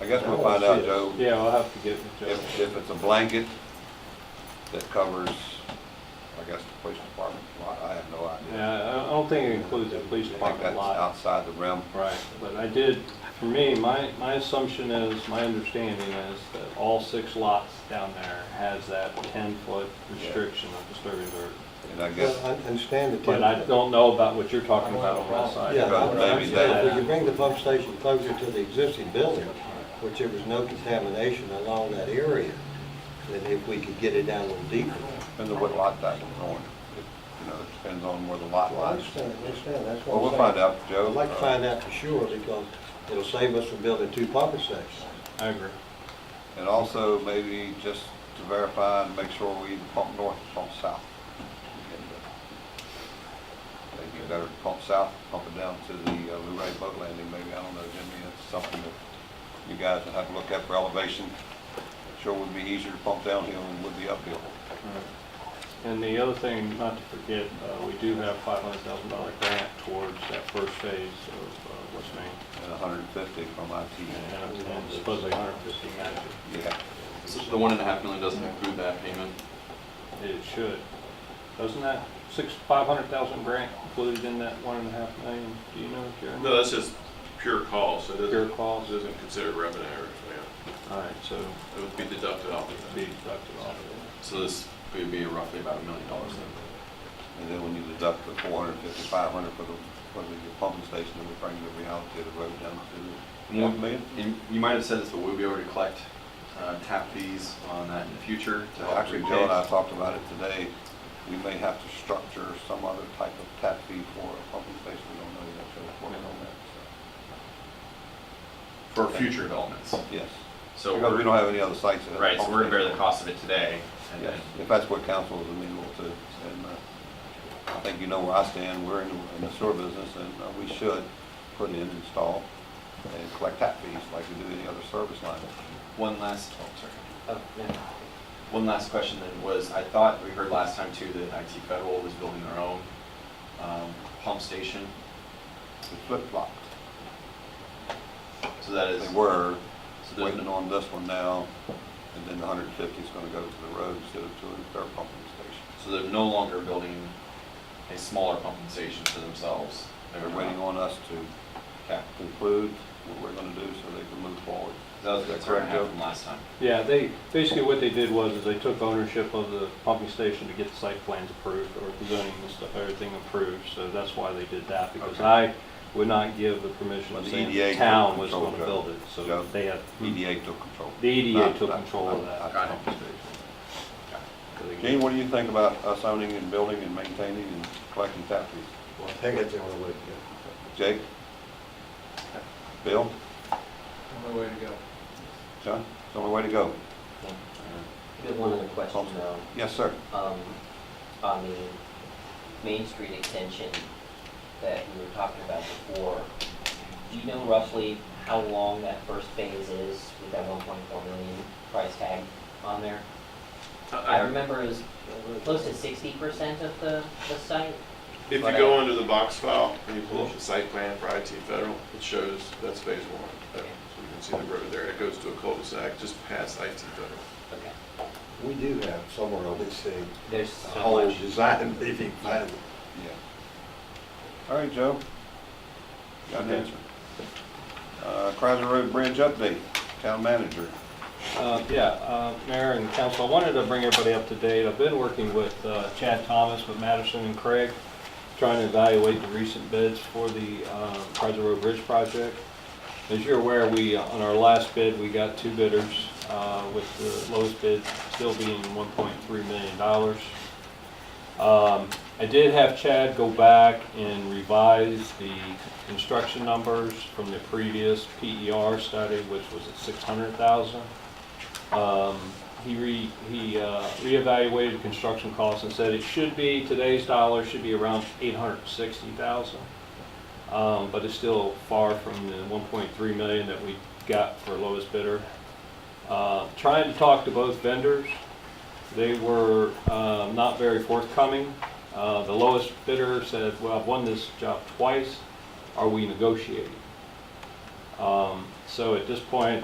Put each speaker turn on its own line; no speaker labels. I guess we'll find out, Joe,
Yeah, I'll have to get with Joe.
if, if it's a blanket that covers, I guess, the police department lot, I have no idea.
Yeah, I don't think it includes the police
I think
department
that's
lot.
outside the realm.
Right, but I did, for me, my, my assumption is, my understanding is that all six lots down there has that ten-foot restriction of disturbing dirt.
And I
Well,
guess,
I understand the
But I don't know about what you're talking about on that side.
Yeah,
But
I
maybe that-
understand, if you bring the pump station closer to the existing building, which there was no contamination along that area, then if we could get it down a little deeper.
depends on what lot that's on. It- You know, it depends on where the lot
Well, I
lies.
understand, I understand, that's
Well,
what I'm
we'll
saying.
find out, Joe.
I'd like to find out for sure, because it'll save us from building two pumping stations.
I agree.
And also maybe just to verify and make sure we either pump north or pump south. Maybe better to pump south, pump it down to the uh, Luray boat landing, maybe, I don't know, Jimmy, that's something that you guys will have to look at for elevation. Sure would be easier to pump downhill than it would be uphill.
And the other thing, not to forget, uh, we do have five hundred thousand dollar grant towards that first phase of uh, West Main.
And a hundred and fifty from IT,
And and supposedly hundred fifty matches.
yeah.
So The one and a half million doesn't include that payment?
It should. Doesn't that six, five hundred thousand grant included in that one and a half million? Do you know, Jeremy?
No, that's just pure cost, it
Pure
doesn't,
cost?
it doesn't consider revenue, yeah,
All right, so
it would be deducted off of
be
that.
deducted off of
So this could be roughly about a million dollars then?
And then when you deduct the four hundred and fifty, five hundred for the, for the pumping station, it would bring the reality of the road down to
More-
one million.
And you might have said this, but we'll be able to collect uh, tap fees on that in the future to help
Actually, Joe and I
repay.
talked about it today. We may have to structure some other type of tap fee for a pumping station. We don't know yet, so we're working on that.
For future developments.
so. Yes.
So
Because we
we're,
don't have any other sites. that have
right, so we're gonna bear the
pumping
cost of it today.
stations.
and
Yes,
then-
if that's what council is amenable to. And uh, I think you know where I stand. We're in the- in the sewer business and uh, we should put in, install, and collect tap fees like we do any other service line.
One last, oh, sorry.
Uh,
One last question then was, I thought we heard last time too that IT Federal was building their own um, pump station.
It's flip-flopped.
So that is,
They were,
So there's
waiting
no-
on this one now, and then the hundred and fifty is gonna go to the road instead of to their pumping station.
so they're no longer building a smaller pumping station for themselves.
They're waiting on us to
Okay.
conclude what we're gonna do so they can move forward.
That was
Is that
the correct
correct, Joe?
joke from last time.
it. Yeah, they, basically what they did was is they took ownership of the pumping station to get the site plans approved or the zoning and stuff, everything approved. So that's why they did that because
Okay.
I would not give the permission
But
of
the
saying
EDA
the town
took
was
control,
going to
Joe.
build it.
Joe.
So they had,
EDA E took control.
Hmm. The EDA
Not-
took
not-
control of
not-
that.
not
Got it.
pumping station.
I
Gene, what do you think about us owning and building and maintaining and collecting tap fees?
Well, I think that's the only way to go.
Jake? Bill?
Only way to go.
John? It's the only way to go.
Good one other question though,
Yes, sir.
um, on the Main Street extension that we were talking about before. Do you know roughly how long that first phase is with that one point four million price tag on there? I
Uh, I- I-
remember it was close to sixty percent of the, the site, uh,
If you go into the box file and you pull up the site plan for IT Federal, it shows that's phase one. So you can see the road there, it goes to a cul-de-sac just past IT Federal.
okay,
We do have somewhere on this thing,
there's
a
so
whole
much.
design, if you find it.
Yeah. All right, Joe. Got an answer. Uh, Chrysler Road Bridge update, town manager.
Uh, Yeah, uh, Mayor and council, I wanted to bring everybody up to date. I've been working with uh, Chad Thomas, with Madison and Craig, trying to evaluate the recent bids for the uh, Kaiser Road Bridge project. As you're aware, we, uh, on our last bid, we got two bidders, uh, with the lowest bid still being $1.3 million. Um, I did have Chad go back and revise the construction numbers from the previous PER study, which was at six hundred thousand. Um, he re, he, uh, reevaluated the construction costs and said it should be, today's dollar should be around eight hundred and sixty thousand. Um, but it's still far from the one point three million that we got for lowest bidder. Uh, trying to talk to both vendors, they were uh, not very forthcoming. Uh, The lowest bidder said, well, I've won this job twice, are we negotiating? Um, So at this point,